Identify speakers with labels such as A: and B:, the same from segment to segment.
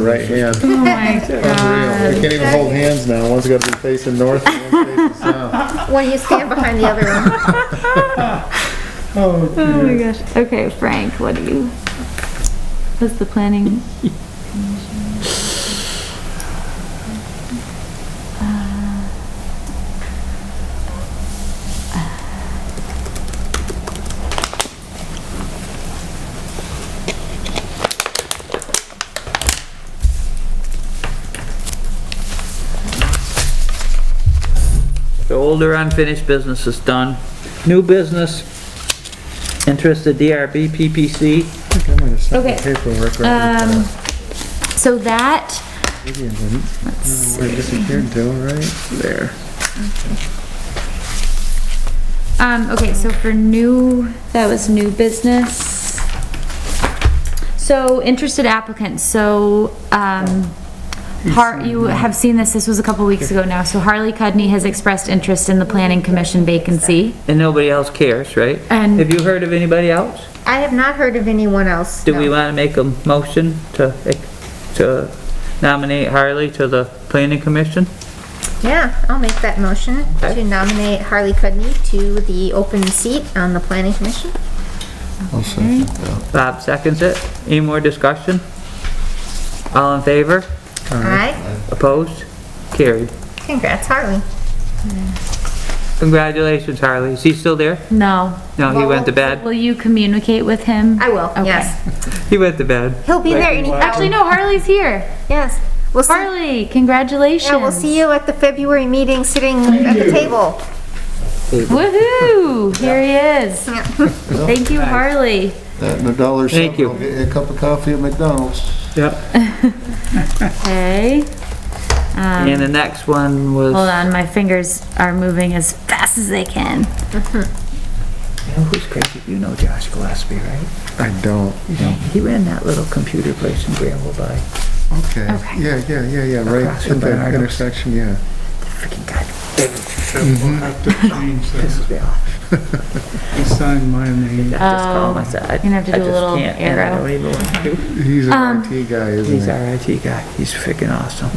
A: right hand.
B: Oh my
A: Unreal. We
B: god.
A: can't even hold hands now. One's gotta be facing north and one's facing south.
C: When you stand behind the other one.
A: Oh,
B: Oh my gosh. Okay, Frank, what do you? What's the planning?
D: The older unfinished business is done. New business, interest of DRB PPC.
A: I think I might have sent my
B: Okay.
A: paperwork right
B: Um,
A: with
B: so that,
A: that. Maybe I didn't. I don't know where it disappeared to, right?
D: There.
B: um, okay, so for new, that was new business. So interested applicants, so, um, Har, you have seen this, this was a couple weeks ago now. So Harley Cudney has expressed interest in the planning commission vacancy.
D: And nobody else cares, right?
B: And-
D: Have you heard of anybody else?
C: I have not heard of anyone else.
D: Do we
C: no.
D: want to make a motion to, to nominate Harley to the planning commission?
C: Yeah, I'll make that motion
D: Okay.
C: to nominate Harley Cudney to the open seat on the planning commission.
A: I'll send it.
D: Bob seconds it. Any more discussion? All in favor?
C: Aye.
D: Opposed? Carried.
C: Congrats, Harley.
D: Congratulations, Harley. Is he still there?
B: No.
D: No, he went to bed.
B: Will you communicate with him?
C: I will,
B: Okay.
C: yes.
D: He went to bed.
C: He'll be there any,
B: Actually, no, Harley's here.
C: yes. We'll see,
B: Harley, congratulations.
C: yeah, we'll see you at the February meeting sitting at the table.
B: Woohoo, here he is.
C: Yeah.
B: Thank you, Harley.
A: That and a dollar
D: Thank you.
A: something, I'll get you a cup of coffee at McDonald's.
D: Yep.
B: Okay,
D: And the next one
B: Um, hold
D: was,
B: on, my fingers are moving as fast as they can.
D: You know who's crazy? You know Josh Gillespie, right?
A: I don't.
D: He ran that little computer place in Granville by.
A: Okay.
B: Okay.
A: Yeah, yeah, yeah, yeah, right
D: Across
A: at
D: from
A: that
D: Bernardo's.
A: intersection, yeah.
D: Freaking God,
E: We'll
B: Mm-hmm.
E: have to change
D: this
E: that.
D: is real. I
E: He signed my name.
D: just call
B: Oh,
D: him, I said, I I
B: you're gonna have
D: just
B: to do a little
D: can't, and I
B: arrow.
D: don't even want to.
A: He's an
B: Um,
A: IT guy,
D: He's
A: isn't
D: our IT guy. He's freaking awesome.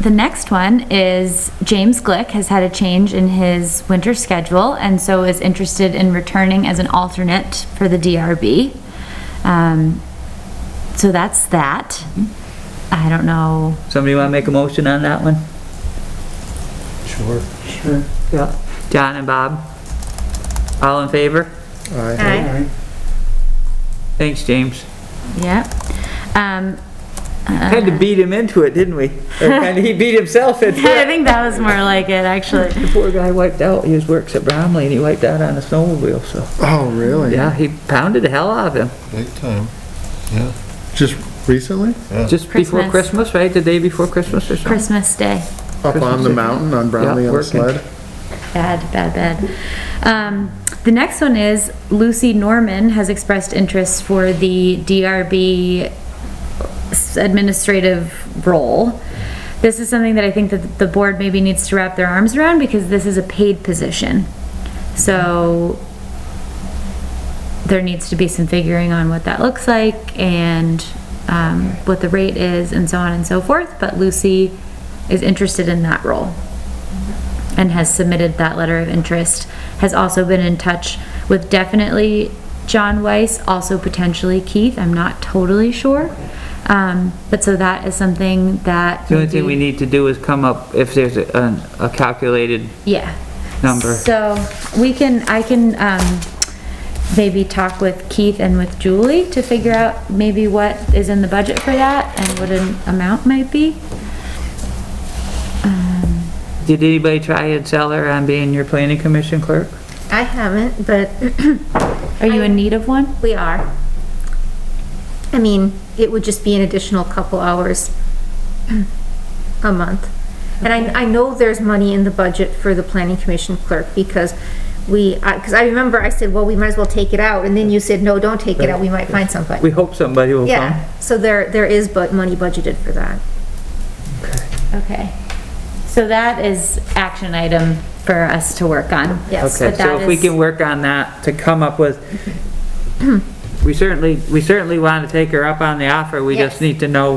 B: The next one is James Glick has had a change in his winter schedule and so is interested in returning as an alternate for the DRB. Um, so that's that. I don't know.
D: Somebody wanna make a motion on that one?
A: he? Sure.
D: Yeah. John and Bob? All in favor?
A: I,
E: Aye.
D: Thanks, James.
B: Yep. Um,
D: Had to beat him into it, didn't we? Or kinda he beat himself into
B: I
D: it.
B: think that was more like it, actually.
D: The poor guy wiped out, he was works at Bromley and he wiped out on a snowmobile, so.
A: oh, really?
D: Yeah, he pounded the hell out of him.
F: Big time, yeah.
A: Just recently?
D: Just before
B: Christmas.
D: Christmas, right? The day before Christmas or something?
B: Christmas Day.
A: Up on the
D: Christmas.
A: mountain on Brownlee on
D: Yeah,
A: the
D: working.
A: sled?
B: Bad, bad, bad. Um, the next one is Lucy Norman has expressed interest for the DRB administrative role. This is something that I think that the board maybe needs to wrap their arms around because this is a paid position. So there needs to be some figuring on what that looks like and, um, what the rate is and so on and so forth, but Lucy is interested in that role and has submitted that letter of interest, has also been in touch with definitely John Weiss, also potentially Keith, I'm not totally sure. Um, but so that is something that.
D: The only thing we
B: maybe-
D: need to do is come up, if there's a, an- a calculated,
B: Yeah.
D: Number.
B: So we can, I can, um, maybe talk with Keith and with Julie to figure out maybe what is in the budget for that and what an amount might be.
D: did anybody try and sell her on being your planning commission clerk?
C: I haven't, but
B: Are you in need of one?
C: we are. I mean, it would just be an additional couple hours a month. And I, I know there's money in the budget for the planning commission clerk because we, I, cause I remember I said, well, we might as well take it out, and then you said, no, don't take it out, we might find somebody.
D: We hope somebody will come.
C: Yeah, so there, there is but money budgeted for that.
B: Okay. So that is action item for us to work on.
C: Yes.
D: Okay,
B: But that
D: so if we
B: is-
D: can work on that to come up with, we certainly, we certainly want to take her up on the offer, we
C: Yes.
D: just need to know